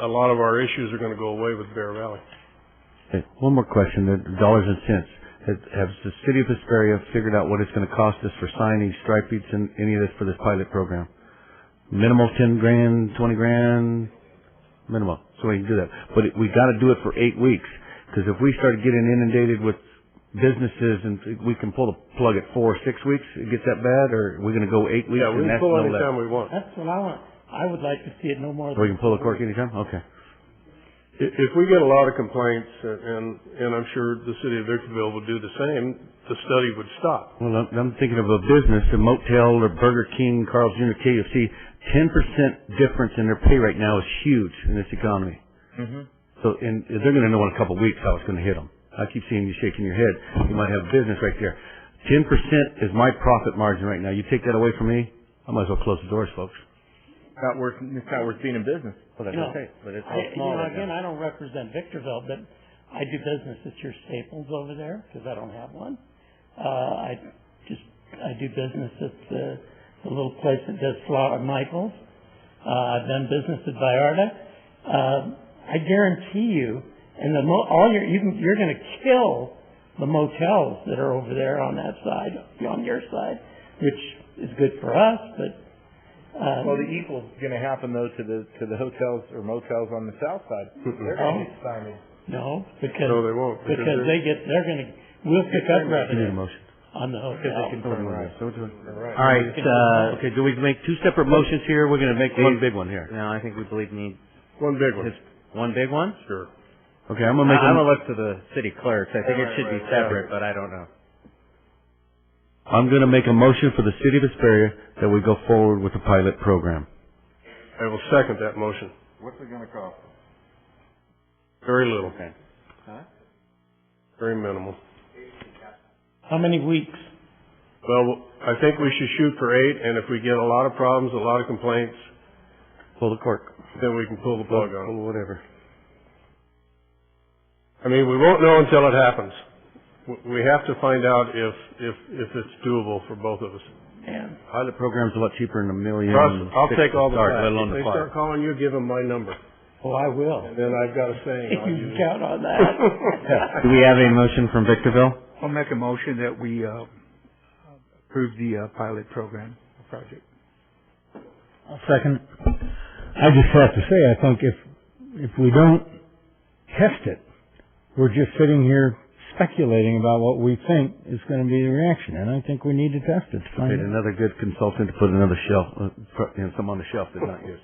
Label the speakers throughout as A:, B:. A: a lot of our issues are going to go away with Bear Valley.
B: Okay, One more question, the dollars and cents. Has- Has the city of Hesperia figured out what it's gonna cost us for signage, stripe beats, and any of this for this pilot program? Minimal ten grand, twenty grand, minimal, so we can do that. But it- we gotta do it for eight weeks, 'cause if we start getting inundated with businesses and we can pull the plug at four, or six weeks, it gets that bad, or we're gonna go eight weeks
A: Yeah, we
B: and
A: can
B: that's
A: pull
B: no
A: anytime
B: less?
A: we want.
C: That's what I want. I would like to see it no more than.
B: We can pull a cork anytime? Okay.
A: I- If we get a lot of complaints, and- and, and I'm sure the city of Victorville would do the same, the study would stop.
B: Well, I'm, I'm thinking of a business, a motel or Burger King, Carl's Jr., KFC. Ten percent difference in their pay right now is huge in this economy. So, and they're going to know in a couple of weeks how it's going to hit them. I keep seeing you shaking your head. You might have business right there. Ten percent is my profit margin right now. You take that away from me, I might as well close the doors, folks.
D: Not worth, it's not worth being in business.
B: Well, that's
C: No.
B: okay, but it's
C: I,
B: so
C: you
B: small
C: know,
B: right
C: again,
B: now.
C: I don't represent Victorville, but I do business at your Staples over there, because I don't have one. Uh, I just, I do business at the, the little place that does flower, Michael's. Uh, I've done business at Vallarta. Um, I guarantee you, and the mo, all your, you can, you're gonna kill the motels that are over there on that side, on your side, which is good for us, but, um.
D: Well, the equal's gonna happen though to the, to the hotels or motels on the south side. They're
C: Oh.
D: gonna need signage.
C: No, because.
A: No, they won't.
C: Because
A: they're-
C: they get, they're gonna, we'll pick up
B: You need a
C: revenue
B: motion.
C: on the hotel.
E: Oh,
B: Don't do this. Don't do it.
E: All right, uh,
B: Okay, do we make two separate motions here? We're going to make one big one here.
E: no, I think we believe need
A: One big one,
E: one big one.
A: sure.
B: Okay, I'm going to make.
E: I'm
B: a-
E: gonna look to the city clerks. I think it should be separate, but I don't know.
B: I'm gonna make a motion for the city of Hesperia that we go forward with the pilot program.
A: I will second that motion.
F: What's it gonna cost?
A: Very little,
E: Okay.
A: very minimal.
C: How many weeks?
A: Well, I think we should shoot for eight, and if we get a lot of problems, a lot of complaints,
B: Pull the cork.
A: then we can pull the plug on it.
B: Pull whatever.
A: I mean, we won't know until it happens. W- We have to find out if, if, if it's doable for both of us.
C: And
B: Pilot program's a lot cheaper than a million.
A: Russ, I'll
B: six
A: take all
B: to
A: the
B: start,
A: flack.
B: Let
A: If
B: alone Mm, the
A: they start
B: five.
A: calling you, give them my number,
C: Oh, I will.
A: and then I've got a saying
C: You
A: on
C: can
A: you.
C: count on that.
B: Do we have a motion from Victorville?
G: I'll make a motion that we uh, approve the uh, pilot program project.
H: Second. I just have to say, I think if, if we don't test it, we're just sitting here speculating about what we think is gonna be the reaction, and I think we need to test it to find
B: Need
H: out.
B: another good consultant to put another shelf, uh, put, you know, some on the shelf that's not yours.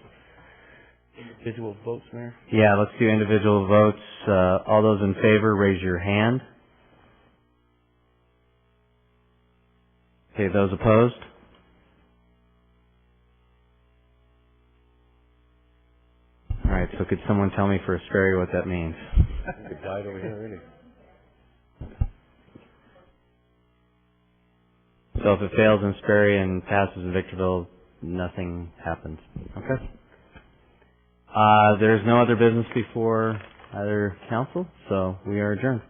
B: Individual votes, Mayor?
E: Yeah, let's do individual votes. Uh, all those in favor, raise your hand. Okay, those opposed? All right, so could someone tell me for Asperia what that means?
B: It died over here already.
E: So if it fails in Sperry and passes in Victorville, nothing happens. Okay. Uh, there's no other business before either council, so we are adjourned.